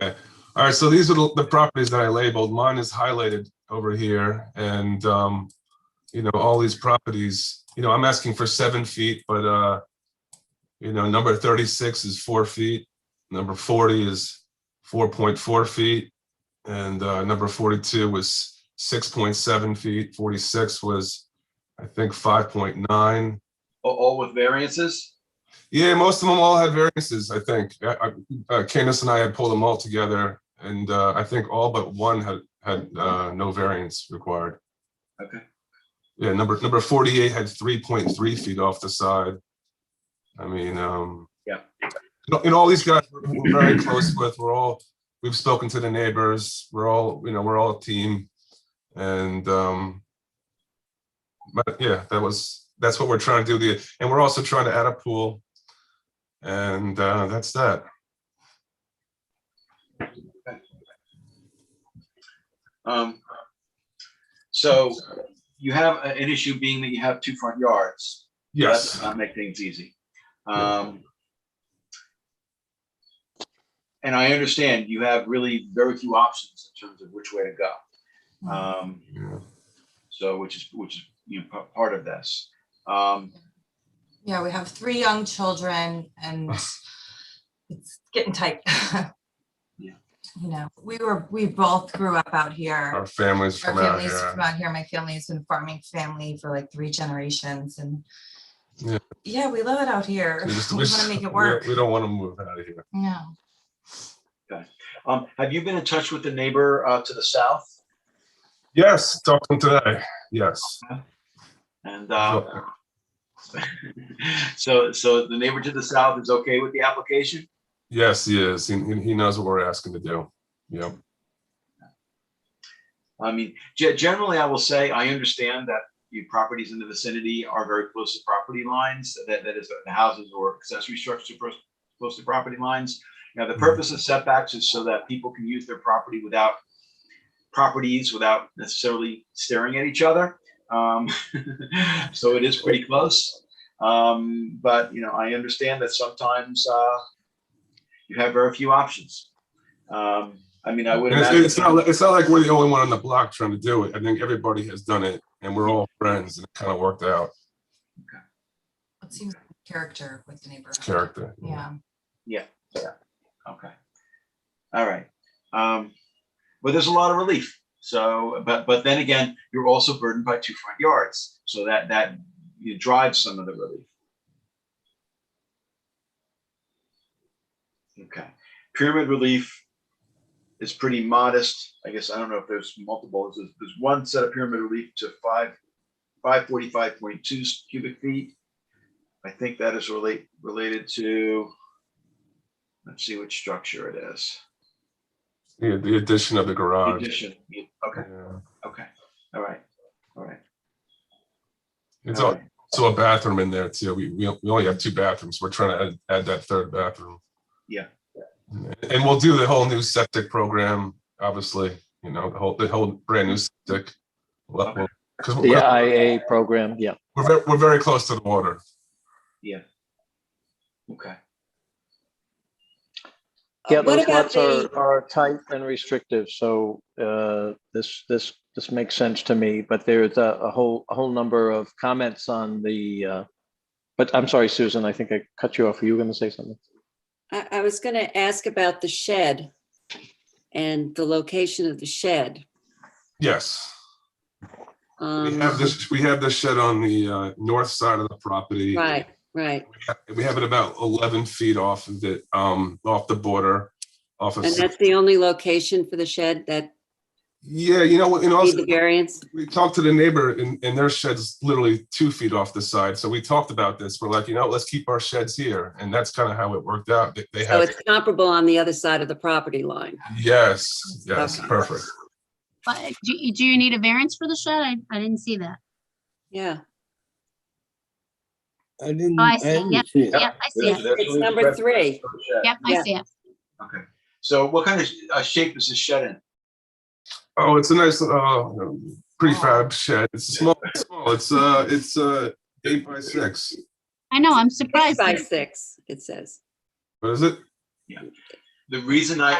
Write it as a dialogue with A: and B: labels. A: All right, so these are the the properties that I labeled. Mine is highlighted over here and, um, you know, all these properties, you know, I'm asking for seven feet, but, uh, you know, number thirty-six is four feet, number forty is four point four feet, and, uh, number forty-two was six point seven feet, forty-six was, I think, five point nine.
B: A- All with variances?
A: Yeah, most of them all had variances, I think. I- I- uh, Candace and I had pulled them all together, and uh, I think all but one had, had uh, no variance required.
B: Okay.
A: Yeah, number, number 48 had 3.3 feet off the side. I mean, um.
B: Yeah.
A: you know, And all these guys we're we're very close with, we're all, we've spoken to the neighbors, we're all, you know, we're all a team. And, um, but yeah, that was, that's what we're trying to do. The And we're also trying to add a pool. And uh, that's that.
B: Um, So you have a- an issue being that you have two front yards. That does
A: Yes,
B: not make things easy. Um, And I understand you have really very few options in terms of which way to go. Um,
A: Yeah.
B: So which is, which is, you know, pa- part of this. Um,
C: Yeah, we have three young children and it's getting tight.
B: Yeah.
C: You know, we were, we both grew up out here.
A: our families
C: Our
A: from out
C: families from
A: here.
C: out here, my family's been farming family for like three generations and
A: Yeah.
C: yeah, we love it out here.
A: We just-
C: We want to make
A: we-
C: it work.
A: We don't want to move out of here.
C: No,
B: um, Have you been in touch with the neighbor uh, to the south?
A: Yes, talking today, yes.
B: And uh, so, so the neighbor to the south is okay with the application?
A: Yes, he is. He, he he knows what we're asking to do. Yep.
B: I mean, ge- generally, I will say, I understand that the properties in the vicinity are very close to property lines, that, that is, the houses or accessory structures are close to property lines. Now, the purpose of setbacks is so that people can use their property without properties, without necessarily staring at each other. Um, So it is pretty close. Um, But, you know, I understand that sometimes uh, you have very few options. Um, I mean, I would
A: And it's,
B: imagine.
A: it's not, li- it's not like we're the only one on the block trying to do it. I think everybody has done it and we're all friends and it kind of worked out,
C: it seems like character with the neighborhood.
A: character.
C: Yeah,
B: Okay. All right. Um, but there's a lot of relief. So, but, but then again, you're also burdened by two front yards. So that, that you drive some of the relief. Okay. Pyramid relief is pretty modest. I guess, I don't know if there's multiple, there's, there's one set of pyramid relief to five, five forty-five point two cubic feet. I think that is relate, related to Let's see which structure it is.
A: The, the addition of the garage.
B: Addition. Okay,
A: Yeah.
B: okay, all right, all right.
A: It's
B: all
A: all,
B: right.
A: so a bathroom in there too. We, we, we only have two bathrooms. We're trying to add, add that third bathroom.
B: Yeah.
A: And we'll do the whole new septic program, obviously, you know, the whole, the whole brand new septic. Well,
B: Okay.
A: Cause
D: The
E: uh,
A: we're,
D: IA program, yeah.
A: we're, ve- we're very close to the water.
B: Okay,
D: Yeah,
C: What
D: those
C: about
D: lots are,
C: the-
D: are tight and restrictive, so, uh, this, this, this makes sense to me, but there's a, a whole, a whole number of comments on the, uh, but I'm sorry, Susan, I think I cut you off. Were you gonna say something?
E: I, I was gonna ask about the shed and the location of the shed.
A: Yes. We
E: Um,
A: have this, we have this shed on the, uh, north side of the property.
E: Right, right.
A: we have it about eleven feet off of the, um, off the border, off of.
E: And that's the only location for the shed that
A: Yeah, you know, what? and
E: need
A: also,
E: the variance?
A: we talked to the neighbor and, and their shed's literally two feet off the side, so we talked about this, we're like, you know, let's keep our sheds here, and that's kind of how it worked out, They- they
E: So
A: have,
E: it's comparable on the other side of the property line.
A: yes, yes,
E: Okay.
A: perfect.
F: But do, you- do you need a variance for the shed? I, I didn't see that.
E: Yeah,
G: I didn't,
F: Oh, I
G: I
F: see. Yep.
G: didn't see it.
F: Yep, I see
B: There's-
F: it.
B: there's
E: It's
B: really
E: number
B: the
E: three.
B: for the shed.
F: Yep, I see it.
B: Okay, so what kind of uh, shape is this shed in?
A: Oh, it's a nice, uh, prefab shed, it's a small, it's small, it's, uh, it's, uh, eight by six,
F: I know, I'm
E: Six
F: surprised.
E: by
F: that-
E: six, it says.
A: what is it?
B: The reason I